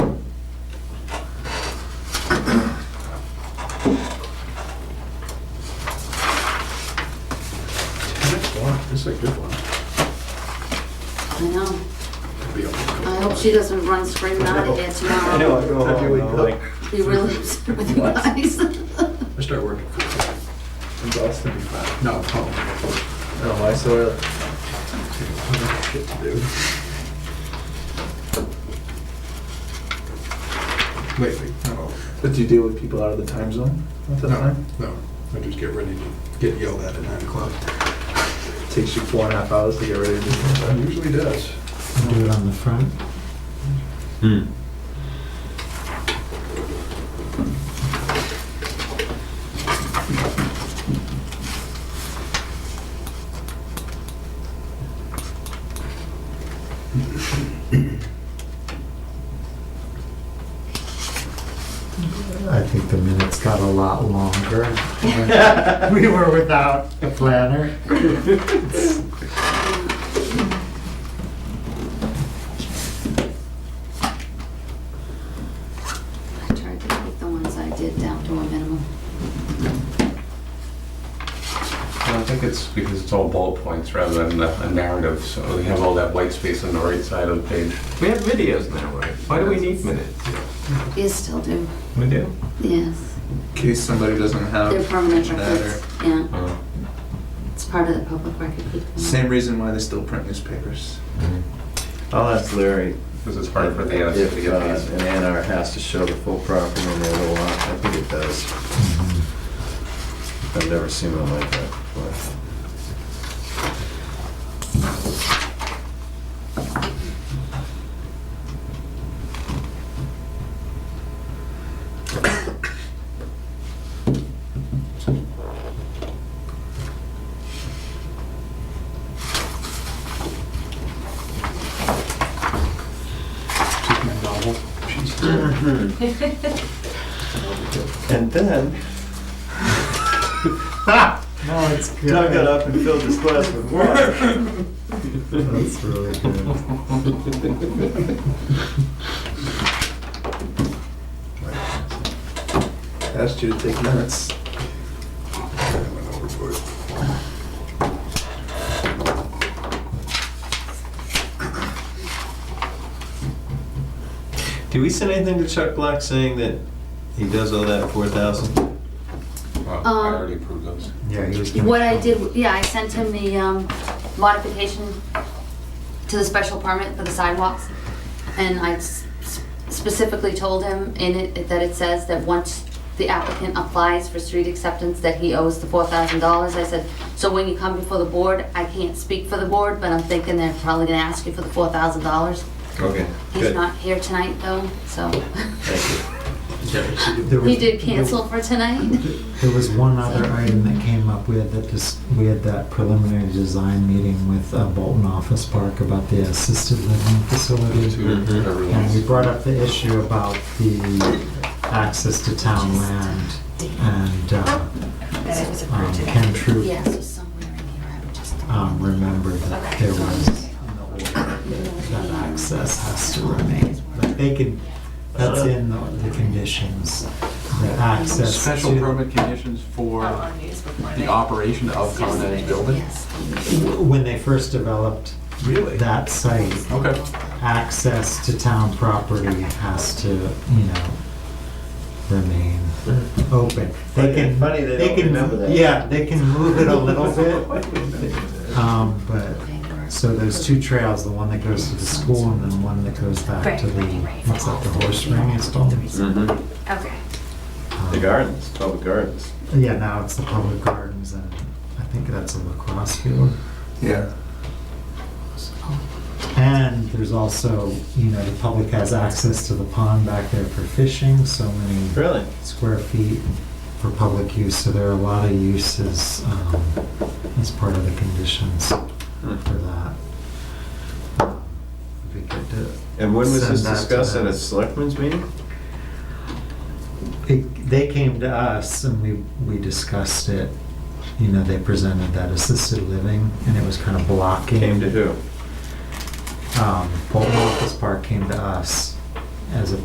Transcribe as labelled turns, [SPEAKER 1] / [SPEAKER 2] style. [SPEAKER 1] Seems like a good one.
[SPEAKER 2] I know.
[SPEAKER 1] Could be a little
[SPEAKER 2] I hope she doesn't run screaming out of here tomorrow.
[SPEAKER 3] I know, I go home, and I'm like,
[SPEAKER 2] Be really upset with you
[SPEAKER 3] What?
[SPEAKER 2] guys.
[SPEAKER 1] bit. I start working for
[SPEAKER 4] in Boston.
[SPEAKER 1] five. No, oh,
[SPEAKER 4] Oh, I saw it.
[SPEAKER 1] shit to do. Wait, wait, no,
[SPEAKER 4] But do you deal with people out of the time zone at the
[SPEAKER 1] no,
[SPEAKER 4] time?
[SPEAKER 1] no. I just get ready to get yelled at at nine o'clock.
[SPEAKER 4] Takes you four and a half hours to get ready to do
[SPEAKER 1] It
[SPEAKER 4] that.
[SPEAKER 1] usually does.
[SPEAKER 5] Do it on the front.
[SPEAKER 3] hmm.
[SPEAKER 5] I think the minutes got a lot longer. when We were without a planner.
[SPEAKER 2] I tried to keep the ones I did down to a minimum.
[SPEAKER 6] Well, I think it's because it's all bullet points rather than a a narrative, so we have all that white space on the right side of the page.
[SPEAKER 3] We have videos now, right? Why do we need minutes?
[SPEAKER 2] You still do,
[SPEAKER 3] We do.
[SPEAKER 2] yes.
[SPEAKER 4] In case somebody doesn't have
[SPEAKER 2] They're permanent
[SPEAKER 4] that
[SPEAKER 2] records,
[SPEAKER 4] or-
[SPEAKER 2] yeah.
[SPEAKER 6] Uh,
[SPEAKER 2] It's part of the public record keeping.
[SPEAKER 4] Same reason why they still print newspapers.
[SPEAKER 7] I'll ask Larry
[SPEAKER 6] Because it's hard for the
[SPEAKER 7] if
[SPEAKER 6] NSF
[SPEAKER 7] uh,
[SPEAKER 6] to get these.
[SPEAKER 7] an A and R has to show the full property on the other lot. I think it does. I've never seen one like that before.
[SPEAKER 1] Just my novel. Jeez.
[SPEAKER 7] And then
[SPEAKER 5] No, it's good.
[SPEAKER 7] Doug got up and filled his glass with water.
[SPEAKER 5] That's really good.
[SPEAKER 4] Asked you to take minutes.
[SPEAKER 1] I went overboard.
[SPEAKER 7] Did we send anything to Chuck Black saying that he does owe that four thousand? uh,
[SPEAKER 2] Um,
[SPEAKER 6] Well, I already approved those.
[SPEAKER 5] Yeah, he was. gonna-
[SPEAKER 2] What I did, yeah, I sent him the um, modification to the special permit for the sidewalks. And I s- specifically told him in it that it says that once the applicant applies for street acceptance, that he owes the four thousand dollars. I said, so when you come before the board, I can't speak for the board, but I'm thinking they're probably gonna ask you for the four thousand dollars.
[SPEAKER 7] Okay,
[SPEAKER 2] He's
[SPEAKER 7] good.
[SPEAKER 2] not here tonight though, so.
[SPEAKER 7] Thank
[SPEAKER 5] There was-
[SPEAKER 2] He did cancel for tonight.
[SPEAKER 5] There was one other item that came up. We had that dis we had that preliminary design meeting with uh, Bolton Office Park about the assisted living facility.
[SPEAKER 6] Two, whatever it
[SPEAKER 5] And we
[SPEAKER 6] was.
[SPEAKER 5] brought up the issue about the access to town land and uh,
[SPEAKER 8] That it was
[SPEAKER 2] Oh,
[SPEAKER 5] um,
[SPEAKER 8] approved today.
[SPEAKER 5] Ken Troop
[SPEAKER 2] Yes, it's somewhere in here, I would just.
[SPEAKER 5] um, remembered that there was an order that that access has to remain. Like they can, that's in the the conditions, the access to.
[SPEAKER 3] Special permit conditions for
[SPEAKER 8] Out Oh, on news before
[SPEAKER 3] the
[SPEAKER 8] they-
[SPEAKER 3] operation of Con Ed's building?
[SPEAKER 2] Yes.
[SPEAKER 5] When they first developed
[SPEAKER 3] Really?
[SPEAKER 5] that site,
[SPEAKER 3] Okay.
[SPEAKER 5] access to town property has to, you know, remain open. They can,
[SPEAKER 7] Mm-hmm. Funny they
[SPEAKER 5] they
[SPEAKER 7] don't
[SPEAKER 5] can,
[SPEAKER 7] remember that.
[SPEAKER 5] yeah, they can move it a little bit. Um, but, so there's two trails, the one that goes to the school and then one that goes back to the, what's that, the horse ring installed?
[SPEAKER 6] Mm-hmm.
[SPEAKER 7] you.
[SPEAKER 8] Okay.
[SPEAKER 7] The gardens, public gardens.
[SPEAKER 5] Yeah, now it's the public gardens and I think that's a lacrosse field.
[SPEAKER 4] Yeah.
[SPEAKER 5] And there's also, you know, the public has access to the pond back there for fishing, so many
[SPEAKER 7] Really?
[SPEAKER 5] square feet for public use, so there are a lot of uses um, as part of the conditions
[SPEAKER 7] Hmm.
[SPEAKER 5] for that. Would be good to-
[SPEAKER 7] And when was
[SPEAKER 5] uh, Send
[SPEAKER 7] this
[SPEAKER 5] that to
[SPEAKER 7] discussed at
[SPEAKER 5] them.
[SPEAKER 7] a selectmen's meeting?
[SPEAKER 5] It- They came to us and we, we discussed it, you know, they presented that assisted living, and it was kind of blocking.
[SPEAKER 7] Came to who?
[SPEAKER 5] Um, Bolton Office Park came to us as a